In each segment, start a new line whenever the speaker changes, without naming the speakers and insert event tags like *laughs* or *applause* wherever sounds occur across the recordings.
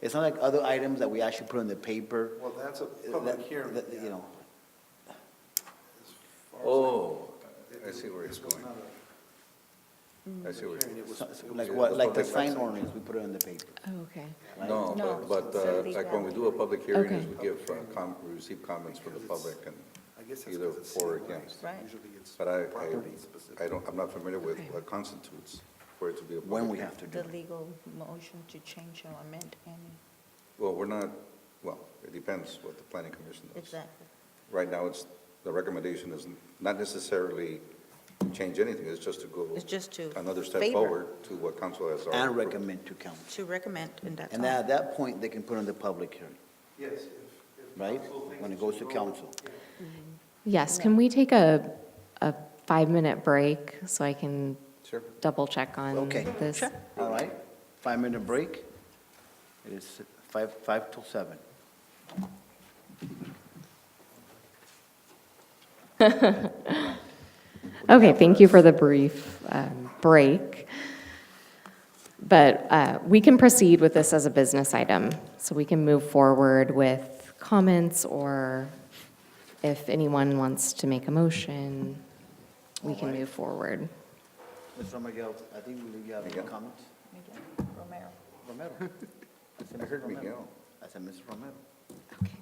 It's not like other items that we actually put in the paper.
Well, that's a
uh,
public
that-
hearing.
that, You know,
Oh,
It-
I see where
it
he's
was
going.
not a
Mm.
I see what
hearing,
you
it was-
so-
it
like
was-
what,
the
like the
public
sign
access.
ordinance, we put it in the paper,
Okay.
right?
No,
No,
but, but
so
uh,
leave
like
that
when we do a public hearing, is
Okay.
we give, uh, com, we receive comments from the public and
I guess that's
either
'cause it's
for or
COI.
against.
Right.
Usually it's
But I,
property specific.
I, I don't, I'm not familiar with
Okay.
what constitutes for it to be a public.
When we
hearing.
have to do
The
it.
legal motion to change or amend any,
Well, we're not, well, it depends what the planning commission does.
exactly.
Right now, it's, the recommendation is not necessarily change anything, it's just to go
It's just to
another step
favor.
forward to what council has already.
And
approved.
recommend to council.
To recommend, and that's
And then
all.
at that point, they can put on the public hearing,
Yes, if- if
right?
council thinks
When
it
it goes to
should go-
council.
Yes, can we take a, a five-minute break so I can
Sure.
double-check on
Okay.
this?
All right, five-minute break. It is five, five till seven.
Okay, thank you for the brief um, break. But uh, we can proceed with this as a business item, so we can move forward with comments, or if anyone wants to make a motion, we can move forward.
Mr. Miguel, I think we- you have any
Miguel.
comments?
Miguel Romero.
Romero. *laughs* I said,
I
"Mr.
heard
Romero."
Miguel.
I said, Mr. Romero.
Okay.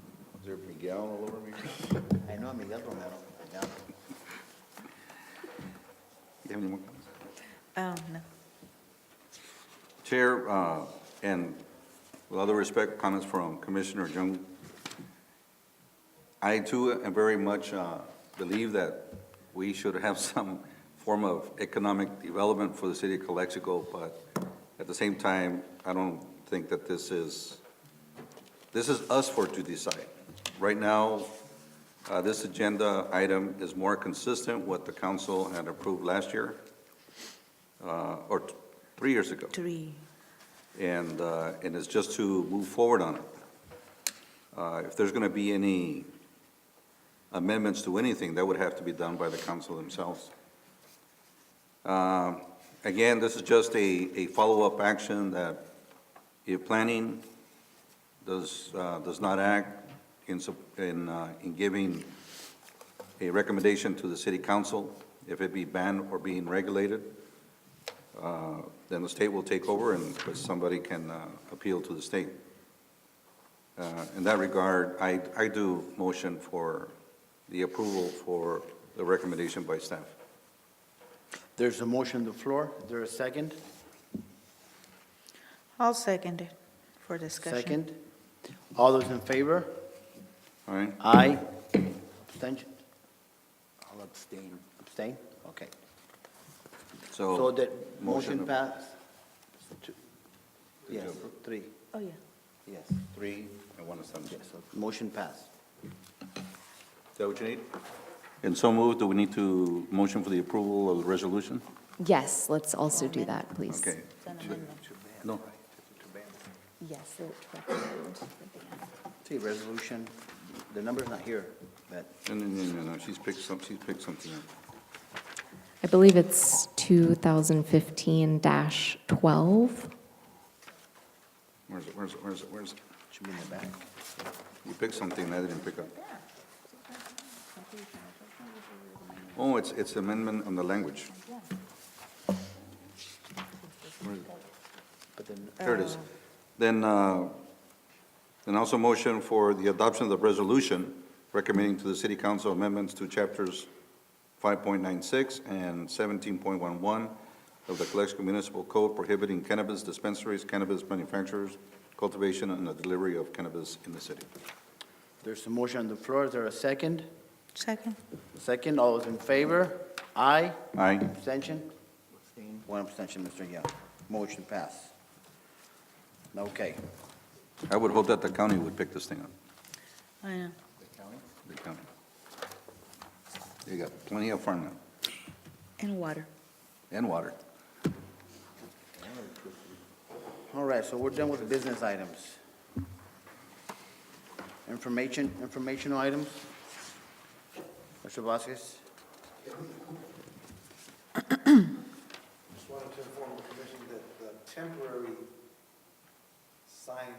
Is there Miguel all over me?
I know Miguel Romero. Yeah.
You have any more comments?
Oh, no.
Chair, uh, and with all due respect, comments from Commissioner Jung. I too am very much uh, believe that we should have *laughs* some form of economic development for the city of Calexico, but at the same time, I don't think that this is, this is us for to decide. Right now, uh, this agenda item is more consistent with what the council had approved last year, uh, or t- three years ago
Three.
and, uh, and it's just to move forward on it. Uh, If there's going to be any amendments to anything, that would have to be done by the council themselves. Um, Again, this is just a, a follow-up action that if planning does, uh, does not act in, sup- in, uh, in giving a recommendation to the city council, if it be banned or being regulated, uh, then the state will take over and somebody can uh, appeal to the state. Uh, In that regard, I, I do motion for the approval for the recommendation by staff.
There's a motion on the floor. Is there a second?
I'll second it for discussion.
Second? All those in favor?
All right?
Aye. Abstention? I'll abstain. Abstain? Okay. So
So,
that Oh, motion
motion-
pass? Two- Yes,
approve?
three,
Oh, yeah.
yes,
three and one abstention.
yes, so motion pass.
Is that what you need? And so moved, do we need to motion for the approval of the resolution?
Yes, let's also do that, please.
Okay.
It's an amendment.
No,
Yes.
See, resolution, the number's not here, but
no, no, no, no, no, she's picked some, she's picked something up.
I believe it's 2015-12.
Where's it, where's it, where's it, where's it?
it should be in the back.
You picked something I didn't pick up. Oh, it's, it's amendment on the language.
But then,
There it is. Then, uh, then also motion for the adoption of the resolution recommending to the city council amendments to chapters 5.96 and 17.11 of the Calexico Municipal Code prohibiting cannabis dispensaries, cannabis manufacturers, cultivation, and the delivery of cannabis in the city.
there's a motion on the floor, is there a second?
Second.
Second, all those in favor? Aye?
Aye.
Abstention? One abstention, Mr. Young. Motion pass. Okay.
I would hope that the county would pick this thing up.
I know.
the county. They got plenty of farmland
And water.
and water.
All right, so we're done with business items. Information, informational items? Mr. Vasquez?
Just wanted to inform the commission that the temporary sign